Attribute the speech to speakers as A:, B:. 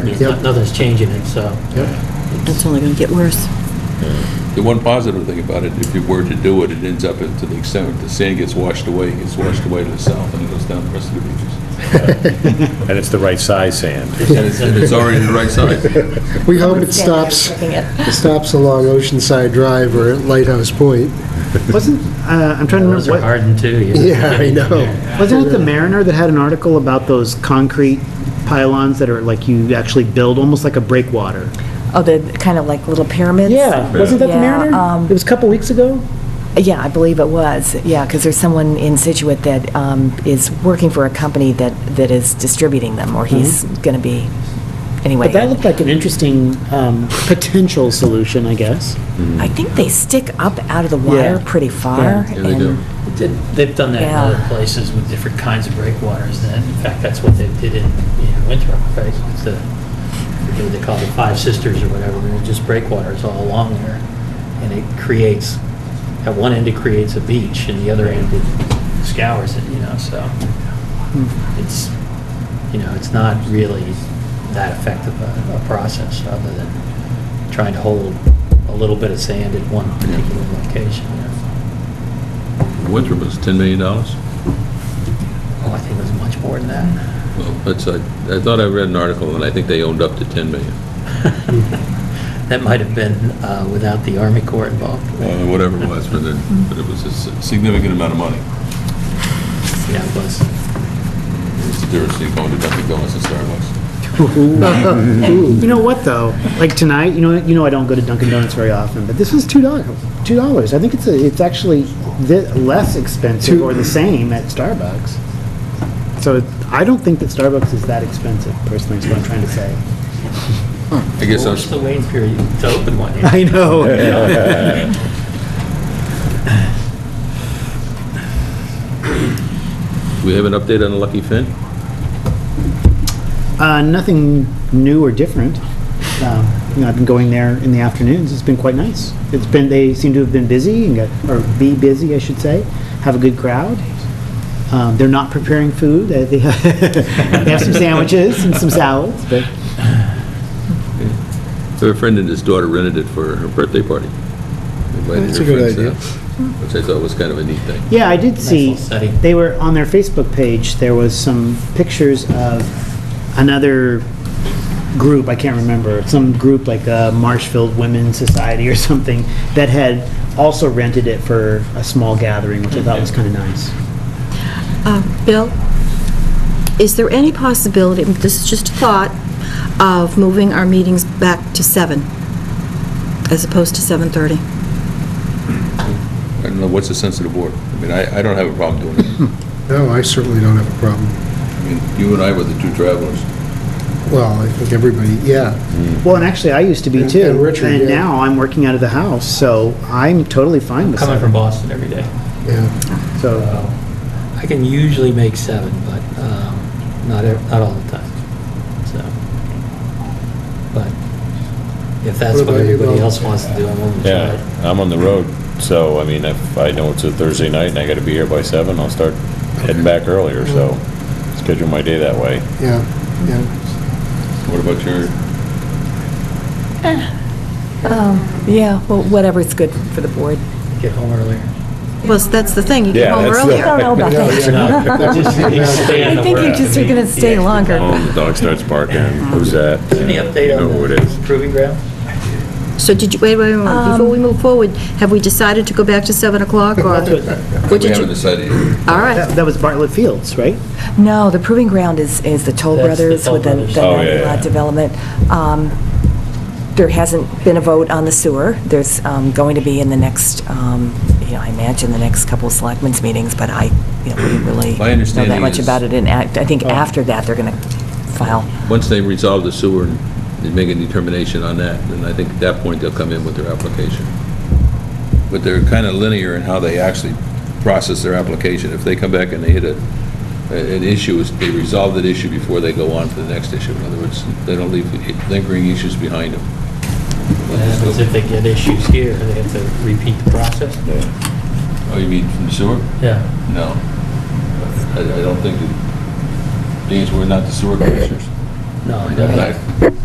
A: There's- Nothing's changing it, so.
B: It's only going to get worse.
C: The one positive thing about it, if you were to do it, it ends up to the extent that the sand gets washed away, it gets washed away to the south and it goes down the rest of the beaches.
D: And it's the right size sand.
C: And it's, and it's already the right size.
E: We hope it stops, it stops along Oceanside Drive or at Lighthouse Point.
F: Wasn't, uh, I'm trying to
A: Those are
F: remember, what-
A: hardened too. you
E: Yeah, I know.
F: wasn't it the Mariner that had an article about those concrete pylons that are like you actually build, almost like a breakwater?
B: Oh, they're kind of like little pyramids?
F: Yeah, wasn't that the
B: Yeah,
F: Mariner?
B: um,
F: It was a couple weeks ago?
B: Yeah, I believe it was, yeah, because there's someone in Situate that um, is working for a company that, that is distributing them, or he's going to be, anyway.
F: Mm-hmm. But that looked like an interesting um, potential solution, I guess.
B: I think they stick up out of the
F: Yeah.
B: water pretty far.
C: Yeah, they do.
B: and-
A: Did- They've done that in
B: Yeah.
A: other places with different kinds of breakwaters, and in fact, that's what they did in, in Winthrop, right? It's the, what they call the Five Sisters or whatever, and it's just breakwaters all along there, and it creates, at one end it creates a beach, and the other end it scours it, you know, so. It's, you know, it's not really that effective a, a process, other than trying to hold a little bit of sand at one particular location, you know.
C: Winthrop was $10 million. Well,
A: Oh, I think it was much more than that.
C: that's, I, I thought I read an article and I think they owned up to 10 million,
A: That might have been uh, without the Army Corps involved.
C: uh, whatever it was, but it, but it was a s- significant amount of money.
A: Yeah, it was.
C: It's the difference between going to Dunkin' Donuts and Starbucks.
F: You know what, though? Like tonight, you know, you know I don't go to Dunkin' Donuts very often, but this was two dollars, two dollars. I think it's, a- it's actually thi- less expensive or the same at Starbucks. So it- I don't think that Starbucks is that expensive, personally, is what I'm trying to say.
C: I guess I
A: What's
C: was,
A: the waiting period to open one?
F: I know.
C: we have an update on the Lucky Finn?
F: Uh, nothing new or different. Um, You know, I've been going there in the afternoons. It's been quite nice. It's been, they seem to have been busy and got, or be busy, I should say, have a good crowd. Um, they're not preparing food. They they have they have some sandwiches and some salads, but
C: I have a friend and his daughter rented it for her birthday party. Invited
E: That's
C: her
E: a good
C: friends
E: idea.
C: out, Which I thought was kind of a neat thing.
F: Yeah, I did see,
A: little study.
F: they were, on their Facebook page, there was some pictures of another group, I can't remember, some group like uh, Marshfield Women's Society or something, that had also rented it for a small gathering, which I thought was
E: Mm-hmm.
F: kind of nice.
G: Uh, Bill, is there any possibility, this is just a thought, of moving our meetings back to seven, as opposed to 7:30?
C: I don't know, what's the sense of the board? I mean, I, I don't have a problem doing it.
E: No, I certainly don't have a problem.
C: I mean, you and I were the two travelers.
E: Well, I think everybody, yeah.
F: Well, and actually, I used to be
E: And-
F: too.
E: and Richard,
F: And
E: yeah.
F: now I'm working out of the house, so I'm totally fine with
A: Coming from
F: that.
A: Boston every day.
E: Yeah,
F: So,
A: So I can usually make seven, but um, not, ev- not all the time, so. But if that's
E: What
A: what
E: about you,
A: everybody
E: Bill?
A: else wants to do, I'm willing to try
D: Yeah,
A: it.
D: I'm on the road, so, I mean, if I know it's a Thursday night and I gotta be here by seven, I'll start heading back earlier, so schedule my day that way.
E: yeah, yeah.
C: What about your,
B: Yeah, well, whatever's good for the board.
A: Get home earlier.
G: Well, that's the thing, you get
D: Yeah,
G: home
D: that's the-
G: earlier.
B: I don't know about that. I think you just are going to
A: E
B: stay longer.
D: Oh, the dog starts barking, who's that?
A: Any update
D: You know
A: on
D: who it is.
A: the proving ground?
G: So did you, wait, wait, wait, wait, before we move forward, have we decided to go back to 7 o'clock, or? What
C: we
G: did
C: haven't
G: you?
C: decided yet.
F: Uh,
G: All right,
F: that that was Bartlett Fields, right?
B: No, the Proving Ground is, is the Toll
A: That's the
B: Brothers
A: Toll
B: with the
A: Brothers.
B: the
D: Oh, yeah,
B: land lot
D: yeah.
B: development. Um, There hasn't been a vote on the sewer. There's um, going to be in the next, um, you know, I imagine the next couple of selectmen's meetings, but I, you know, we really
C: My
B: know
C: understanding
B: that much
C: is-
B: about it, and act- I
A: Oh.
B: think after that, they're going to file.
C: once they resolve the sewer and they make a determination on that, then I think at that point they'll come in with their application. But they're kind of linear in how they actually process their application. If they come back and they hit a, an issue, is they resolve that issue before they go on to the next issue. In other words, they don't leave lingering issues behind them.
A: Because if they get issues here, they have to repeat the process?
C: Oh, you mean from the sewer?
A: Yeah.
C: No. I, I don't think, that- these were not the sewer commissioners.
H: No, I
A: That
H: don't.
A: night.